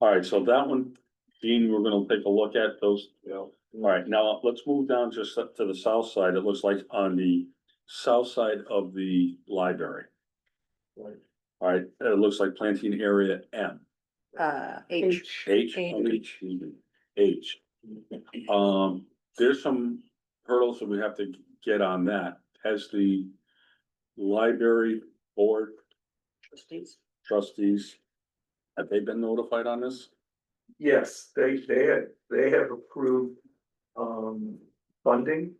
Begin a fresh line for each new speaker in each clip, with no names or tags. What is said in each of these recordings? All right, so that one, Dean, we're gonna take a look at those.
Yeah.
All right, now let's move down just up to the south side. It looks like on the south side of the library.
Right.
All right, it looks like planting area M.
uh, H.
H,
H.
okay, excuse me, H. Um, there's some hurdles that we have to get on that. Has the library board trustees, have they been notified on this?
Yes, they, they had, they have approved, um, funding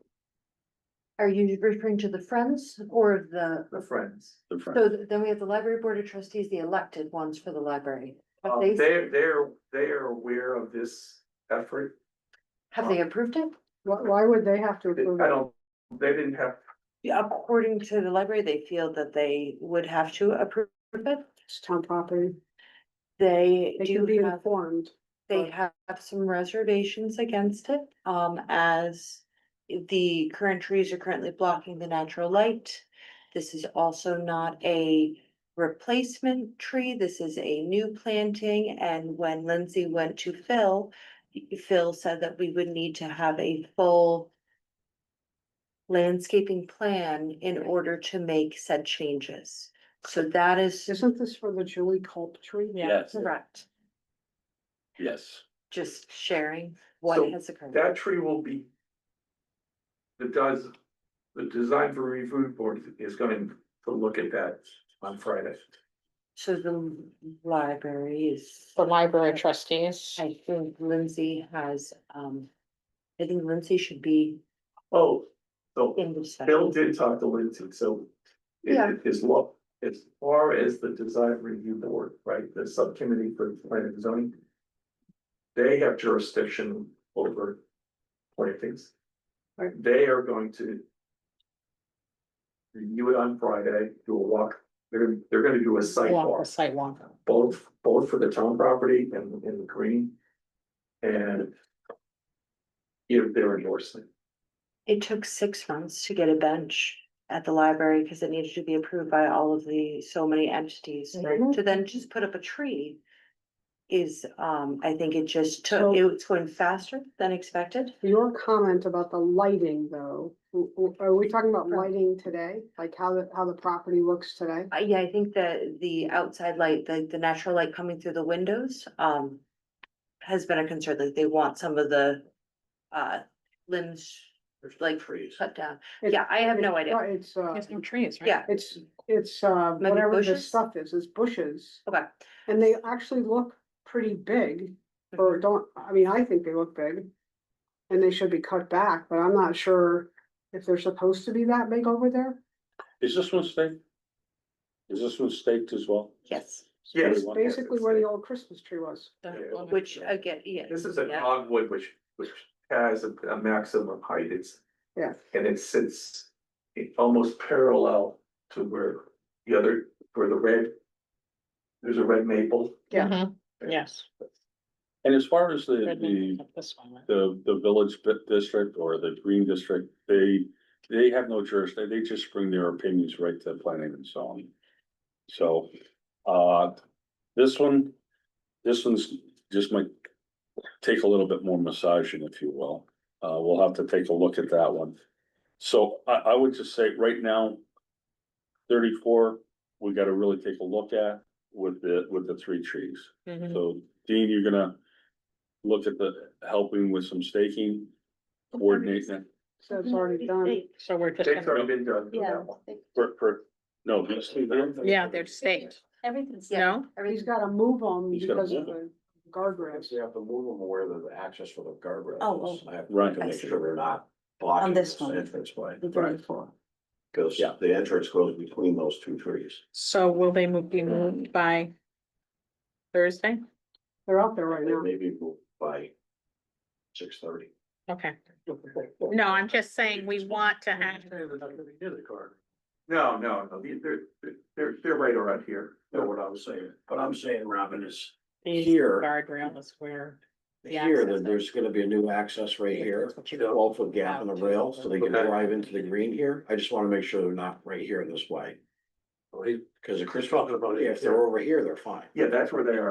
Are you referring to the Friends or the,
for Friends.
The friend,
so then we have the library board of trustees, the elected ones for the library. Have
Oh,
Um,
they,
They're, they're, they are aware of this effort.
have they approved it?
Why, why would they have to
I
approve it?
don't, they didn't have,
According to the library, they feel that they would have to approve it.
It's town property.
They
They
do
can be
have
informed.
They
But-
have some reservations against it, um, as the current trees are currently blocking the natural light. This is also not a replacement tree, this is a new planting, and when Lindsay went to Phil, Phil said that we would need to have a full landscaping plan in order to make said changes. So that is
Isn't this for the Julie Culp tree?
Yes.
correct,
yes.
just sharing what
So
has occurred.
that tree will be. The does, the design for review board is going to look at that on Friday.
So the library is,
The library trustees.
I think Lindsay has, um, I think Lindsay should be
Oh, so
in the session.
Bill did talk to Lindsay, so. it-
Yeah.
it is lo- as far as the design review board, right, the subcommittee for planning and zoning. They have jurisdiction over plantings.
Right.
They are going to. Review it on Friday, do a walk, they're, they're gonna do a site
Walk the
walk,
sidewalk.
both, both for the town property and in the green. And. Give their endorsement.
It took six months to get a bench at the library because it needed to be approved by all of the, so many entities.
Mm-hmm.
Mhm.
To then just put up a tree is, um, I think it just
So-
took, it was going faster than expected.
Your comment about the lighting though, w- w- are we talking about
Right.
lighting today? Like how the, how the property looks today?
Uh, yeah, I think that the outside light, the, the natural light coming through the windows, um, has been a concern, like they want some of the, uh, limbs like
Trees.
cut down.
It's-
Yeah, I have no idea.
uh, It's, uh,
There's no trees, right?
Yeah,
it's, it's, uh,
Maybe
whatever this
bushes?
stuff is, it's bushes.
okay.
And they actually look pretty big, or
Mm-hmm.
don't, I mean, I think they look big. And they should be cut back, but I'm not sure if they're supposed to be that big over there.
Is this one staked? Is this one staked as well?
Yes,
Yes.
It's Basically where the old Christmas tree was.
which again, yeah.
This is a
yeah.
dogwood which, which has a, a maximum height, it's.
Yeah.
And it sits, it almost parallel to where the other, where the red. There's a red maple.
Yeah.
Mhm, Yes.
And as far as the, the,
Redmond, This one, right?
the, the village bit district or the green district, they, they have no jurisdiction. They just bring their opinions right to planning and zoning. So, uh, this one, this one's just might take a little bit more massaging, if you will. Uh, we'll have to take a look at that one. So I, I would just say right now, thirty-four, we gotta really take a look at with the, with the three trees.
Mhm.
So Dean, you're gonna look at the, helping with some staking, coordinate that
So
Mhm.
it's already done.
So we're just.
It's
gonna-
already been done. for that one.
for, for, no, these two there?
Yeah, they're staked.
Everything's, yeah,
No?
He's
everything's.
gotta move them
He's gotta
because of
move
the guardrails.
have to move them where the access for the guardrail.
Oh,
is. I have
Right.
To
I
make
see.
sure they're not blocking
this
this
one.
entrance way,
Thirty-four.
because
Yeah.
Uh-huh.
the entrance goes between those two trees.
So will they move, be
Mm-hmm.
moved by Thursday?
They're out there right
They
now.
may be moved by six thirty.
Okay. No, I'm just saying we want to have,
No, no, no, the- they're, they're- they're, they're right around here.
Know what I was saying, but I'm saying, Robin, is
these
Here.
guardrail is where. The
here,
access.
that there's gonna be a new access right here.
That's what you-
Twelve foot gap in the rail, so they can
Okay.
drive into the green here. I just wanna make sure they're not right here this way. Cause the Chris,
talking about it.
if they're over here, they're fine.
Yeah, that's where they are.